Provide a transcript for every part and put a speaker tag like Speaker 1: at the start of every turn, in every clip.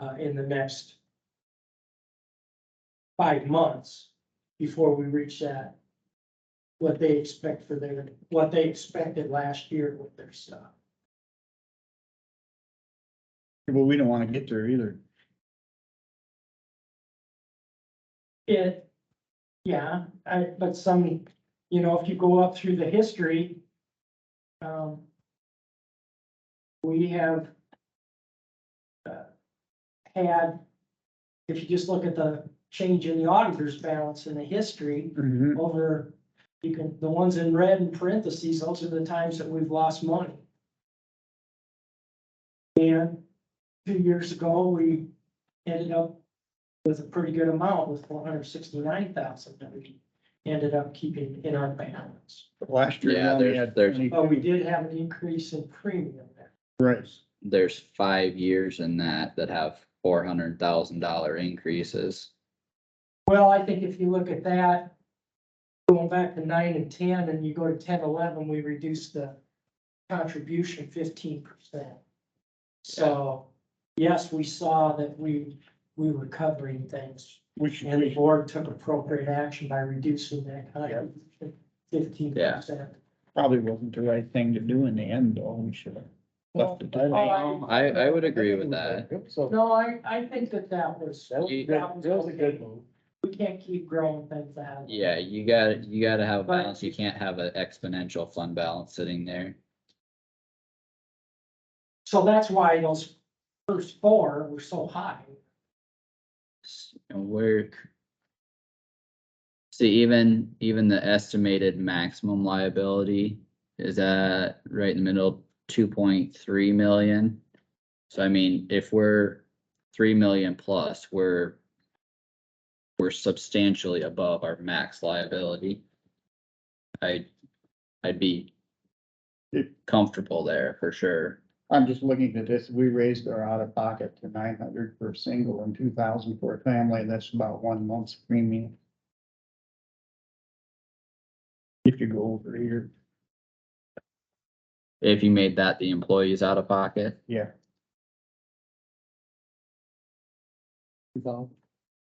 Speaker 1: uh, in the next five months before we reach that, what they expect for their, what they expected last year with their stuff.
Speaker 2: Well, we don't wanna get there either.
Speaker 1: It, yeah, I, but some, you know, if you go up through the history, um, we have uh, had, if you just look at the change in the auditor's balance in the history,
Speaker 3: Mm-hmm.
Speaker 2: Mhm.
Speaker 1: over, you can, the ones in red in parentheses, those are the times that we've lost money. And two years ago, we ended up with a pretty good amount with four hundred sixty-nine thousand that we ended up keeping in our balance.
Speaker 2: Last year. we
Speaker 4: Yeah,
Speaker 2: only
Speaker 4: there's-
Speaker 2: had
Speaker 4: there's-
Speaker 2: 20
Speaker 3: Oh,
Speaker 1: But we did have an increase in premium there.
Speaker 2: Right,
Speaker 4: there's five years in that that have four hundred thousand dollar increases.
Speaker 1: Well, I think if you look at that, going back to nine and ten, and you go to 10, 11, we reduced the contribution fifteen percent. So, yes, we saw that we, we were covering things,
Speaker 2: we should,
Speaker 1: and the
Speaker 2: we-
Speaker 1: board took appropriate action by reducing that contribution fifteen percent.
Speaker 2: probably wasn't the right thing to do in the end, though, we should have left it. that way.
Speaker 1: No,
Speaker 4: I, I would agree with that.
Speaker 3: So
Speaker 1: I, I think that that was,
Speaker 3: that was,
Speaker 4: You-
Speaker 3: good. that was a good move.
Speaker 1: we can't keep growing things out.
Speaker 4: Yeah, you gotta, you gotta have a balance. You can't have an exponential fund balance sitting there.
Speaker 1: So that's why those first four were so high.
Speaker 4: And we're. See, even, even the estimated maximum liability is at right in the middle, two point three million. So I mean, if we're three million plus, we're. We're substantially above our max liability. I, I'd be. Comfortable there for sure.
Speaker 2: I'm just looking at this, we raised our out of pocket to nine hundred for a single and two thousand for a family, and that's about one month's premium. If you go over here,
Speaker 4: If you made that the employees out of pocket,
Speaker 2: yeah,
Speaker 3: So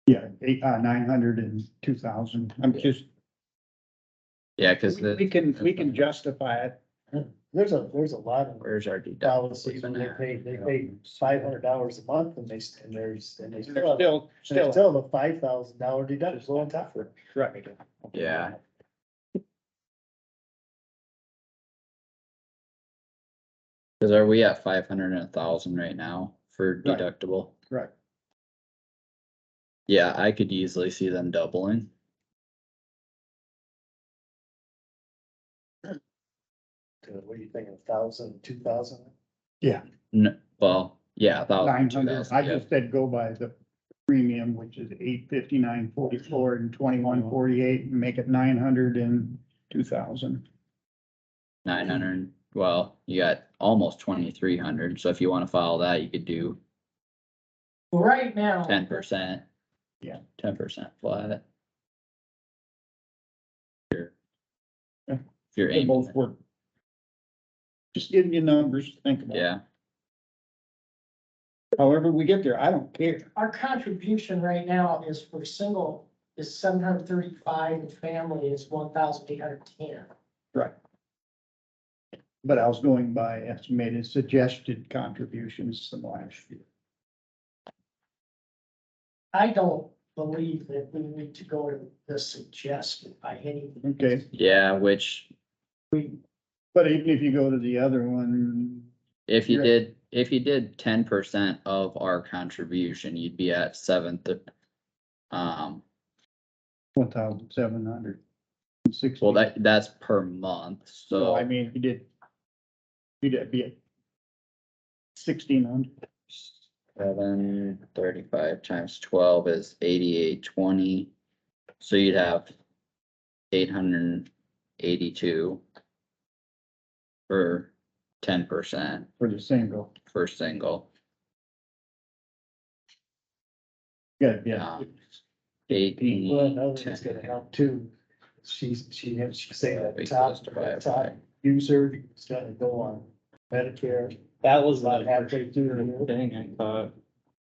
Speaker 2: yeah, eight, uh, nine hundred and two thousand, I'm just,
Speaker 4: yeah, cause
Speaker 2: we we
Speaker 4: the,
Speaker 2: can, we can justify it.
Speaker 3: There's a, there's a lot of
Speaker 4: where's our deductible?
Speaker 3: policies when they pay, they pay five hundred dollars a month and they, s- and there's, and they
Speaker 2: There's
Speaker 3: still, have-
Speaker 2: still,
Speaker 3: there's
Speaker 2: still,
Speaker 3: still the five thousand dollar deductible on top of it.
Speaker 2: right,
Speaker 4: Yeah. Cause are we at five hundred and a thousand right now for
Speaker 2: Right.
Speaker 4: deductible?
Speaker 2: right.
Speaker 4: Yeah, I could easily see them doubling.
Speaker 3: To- What do you think, a thousand, two thousand?
Speaker 4: No, well, yeah,
Speaker 2: Nine
Speaker 4: about two
Speaker 2: hundred, I
Speaker 4: thousand,
Speaker 2: just said go by the premium, which is eight fifty-nine forty-four and twenty-one forty-eight, and make it nine hundred and two thousand.
Speaker 4: nine hundred, well, you got almost twenty-three hundred, so if you wanna follow that, you could do
Speaker 1: Well, Right now.
Speaker 4: ten percent.
Speaker 2: Yeah.
Speaker 4: Ten percent flat. You're-
Speaker 2: Yeah.
Speaker 4: If you're
Speaker 2: They
Speaker 4: aiming,
Speaker 2: both work. Just giving you numbers, to think about.
Speaker 4: yeah,
Speaker 2: However we get there, I don't care.
Speaker 1: our contribution right now is for single is seven hundred thirty-five and family is one thousand eight hundred ten.
Speaker 2: But I was going by estimated suggested contributions from last year.
Speaker 1: I don't believe that we need to go to the suggested by any,
Speaker 2: Okay,
Speaker 4: yeah, which
Speaker 1: we,
Speaker 2: but even if you go to the other one,
Speaker 4: If you
Speaker 2: Right.
Speaker 4: did, if you did ten percent of our contribution, you'd be at seventh. Um,
Speaker 2: one thousand seven hundred and sixty.
Speaker 4: well, that, that's per month,
Speaker 2: So I
Speaker 4: so,
Speaker 2: mean, if you did. You'd have- be at sixteen hundred.
Speaker 4: seven thirty-five times twelve is eighty-eight twenty. So you'd have eight hundred and eighty-two. For ten percent
Speaker 2: for the single.
Speaker 4: for single,
Speaker 2: Yeah,
Speaker 4: Yeah.
Speaker 2: yeah.
Speaker 4: eighteen.
Speaker 3: Well, another thing's
Speaker 4: 10.
Speaker 3: gonna help too. She's, she, she's saying
Speaker 4: Be
Speaker 3: that top,
Speaker 4: close to five,
Speaker 3: top
Speaker 4: right?
Speaker 3: user is gonna go on Medicare.
Speaker 5: That was
Speaker 3: About
Speaker 5: the
Speaker 3: halfway through the year.
Speaker 5: thing I thought